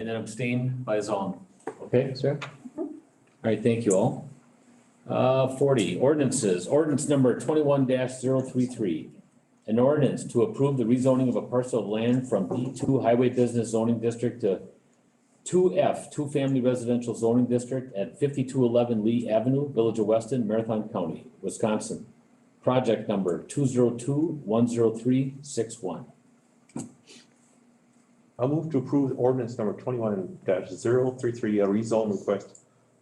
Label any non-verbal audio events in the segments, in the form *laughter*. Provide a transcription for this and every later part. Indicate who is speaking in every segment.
Speaker 1: and then abstain by Zong. Okay, sir?
Speaker 2: Mhm.
Speaker 1: All right, thank you all. Uh, forty, ordinances, ordinance number twenty-one 33 An ordinance to approve the rezoning of a parcel of land from D two Highway Business Zoning District to two F, Two Family Residential Zoning District at fifty-two eleven Lee Avenue, Village of Weston, Marathon County, Wisconsin. Project number two zero two one zero three six one.
Speaker 3: I'll move to approve ordinance number twenty-one 33 a rezone request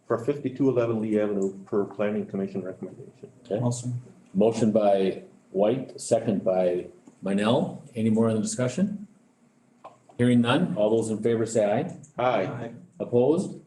Speaker 3: for fifty-two eleven Lee Avenue per planning commission recommendation.
Speaker 4: Awesome.
Speaker 1: Motion by White, second by Minell. Any more on the discussion? Hearing none. All those in favor say aye.
Speaker 3: Aye,
Speaker 1: Opposed?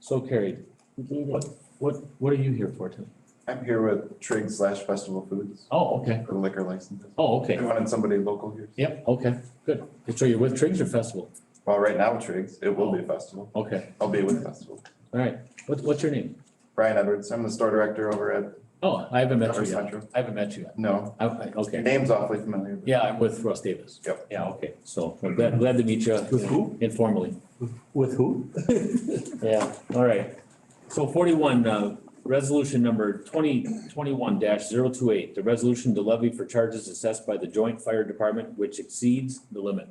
Speaker 1: So carried. What, what are you here for tonight?
Speaker 5: I'm here with Trig slash Festival Foods
Speaker 1: Oh, okay.
Speaker 5: for liquor licenses.
Speaker 1: Oh,
Speaker 5: I
Speaker 1: okay.
Speaker 5: wanted somebody local here.
Speaker 1: Yep, okay, good. So you're with Triggs or Festival?
Speaker 5: Well, right now Trig's, it will be a festival.
Speaker 1: Okay,
Speaker 5: I'll be with Festival.
Speaker 1: all right. What, what's your name?
Speaker 5: Brian Edwards, I'm the store director over at
Speaker 1: Oh, I haven't met you
Speaker 5: Commerce
Speaker 1: yet.
Speaker 5: Central.
Speaker 1: I haven't met you yet.
Speaker 5: No,
Speaker 1: I- I-
Speaker 5: your
Speaker 1: Okay,
Speaker 5: name's awfully familiar. but-
Speaker 1: yeah, I'm with Russ Davis.
Speaker 5: Yep.
Speaker 1: Yeah, okay, so I'm glad, glad to meet you
Speaker 3: who?
Speaker 1: informally.
Speaker 4: With who?
Speaker 1: *laughs* Yeah, all right. So forty-one, uh, resolution number twenty twenty-one 28 the resolution to levy for charges assessed by the joint fire department which exceeds the limit.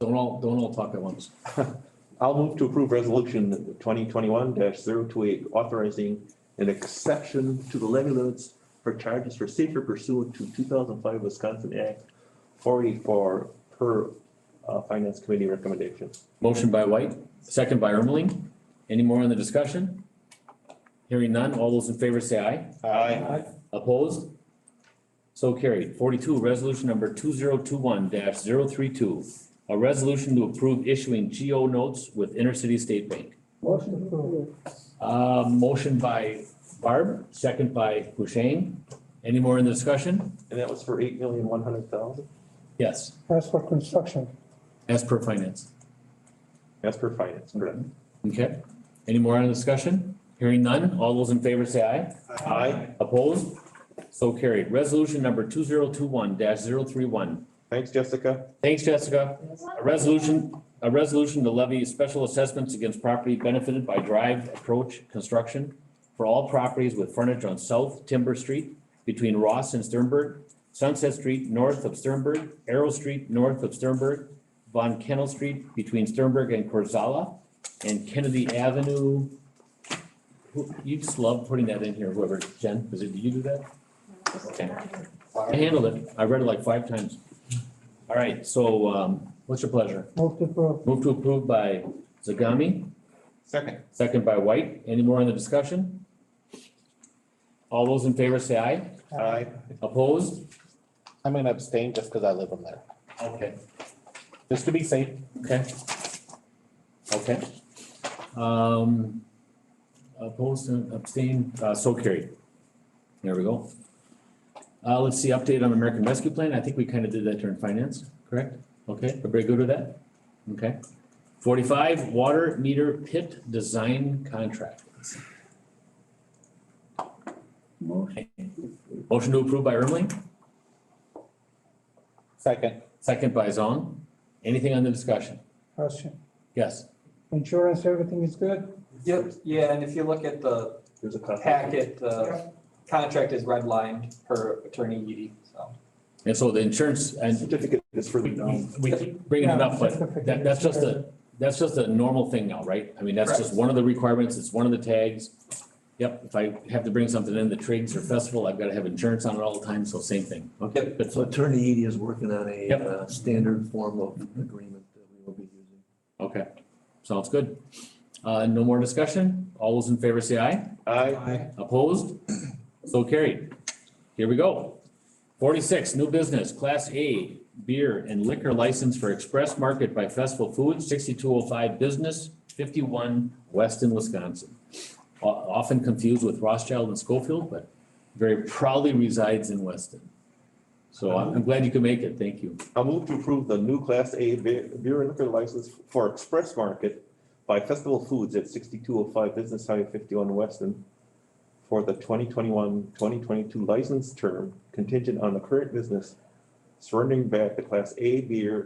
Speaker 1: Don't all, don't all talk at once.
Speaker 3: I'll move to approve resolution twenty twenty-one 28 authorizing an exception to the levy limits for charges for safer pursuant to two thousand five Wisconsin Act four eighty-four per uh, finance committee recommendation.
Speaker 1: Motion by White, second by Ermeling. Any more on the discussion? Hearing none, all those in favor say aye.
Speaker 5: Aye.
Speaker 1: Opposed? So carried. Forty-two, resolution number two zero two one 32 A resolution to approve issuing GO notes with Intercity State Bank.
Speaker 2: Motion approved.
Speaker 1: Uh, motion by Barb, second by Husheng. Any more in the discussion?
Speaker 3: And that was for eight million one hundred thousand,
Speaker 1: Yes,
Speaker 2: As for construction,
Speaker 1: as per finance.
Speaker 3: that's per finance, correct?
Speaker 1: Okay. Any more in the discussion? Hearing none. All those in favor say aye.
Speaker 3: Aye,
Speaker 1: Opposed? So carried. Resolution number two zero two one 31
Speaker 3: thanks, Jessica.
Speaker 1: Thanks, Jessica. A resolution, a resolution to levy special assessments against property benefited by drive approach construction for all properties with frontage on South Timber Street between Ross and Sternberg, Sunset Street north of Sternberg, Arrow Street north of Sternberg, Von Kennel Street between Sternberg and Corzala, and Kennedy Avenue. Who- You just love putting that in here, whoever, Jen, is it, did you do that? Okay. I handled it. I read it like five times. All right, so um, what's your pleasure?
Speaker 2: move to approve.
Speaker 1: Move to approve by Zagami,
Speaker 5: Second.
Speaker 1: second by White. Any more on the discussion? All those in favor say aye.
Speaker 3: Aye.
Speaker 1: Opposed?
Speaker 6: I'm gonna abstain just because I live in there,
Speaker 1: Okay.
Speaker 6: just to be safe.
Speaker 1: Okay. Okay. Um, opposed and abstained, uh, so carried. There we go. Uh, let's see, update on American Rescue Plan. I think we kind of did that during finance, correct? Okay, everybody good with that? Okay. Forty-five, water meter pit design contract. Motion. to approve by Ermeling,
Speaker 6: Second,
Speaker 1: second by Zong. Anything on the discussion?
Speaker 2: Question.
Speaker 1: Yes.
Speaker 2: Insurance, everything is good?
Speaker 7: Yep, yeah, and if you look at the
Speaker 3: There's a copy.
Speaker 7: packet, the contract is redlined per attorney Edie, so.
Speaker 1: And so the insurance and
Speaker 3: Certificate is for the.
Speaker 1: We, we keep bringing it up, but that, that's just a, that's just a normal thing now, right? I mean, that's just one of the requirements, it's one of the tags. Yep, if I have to bring something in, the Triggs or festival, I've gotta have insurance on it all the time, so same thing. Okay, good,
Speaker 8: So
Speaker 1: so,
Speaker 8: Attorney Edie is working on a
Speaker 1: Yep.
Speaker 8: uh, standard form of agreement that we will be using.
Speaker 1: okay, sounds good. Uh, no more discussion? All those in favor say aye.
Speaker 3: Aye.
Speaker 1: Opposed? So carried. Here we go. Forty-six, new business, class A beer and liquor license for Express Market by Festival Foods, sixty-two oh five Business, fifty-one Weston, Wisconsin. O- Often confused with Rothschild and Schofield, but very proudly resides in Weston. So I'm I'm glad you could make it. Thank you.
Speaker 3: I'll move to approve the new Class A be- beer and liquor license for Express Market by Festival Foods at sixty-two oh five Business Highway fifty-one Weston for the 2021-2022 license term contingent on the current business surrendering back the class A beer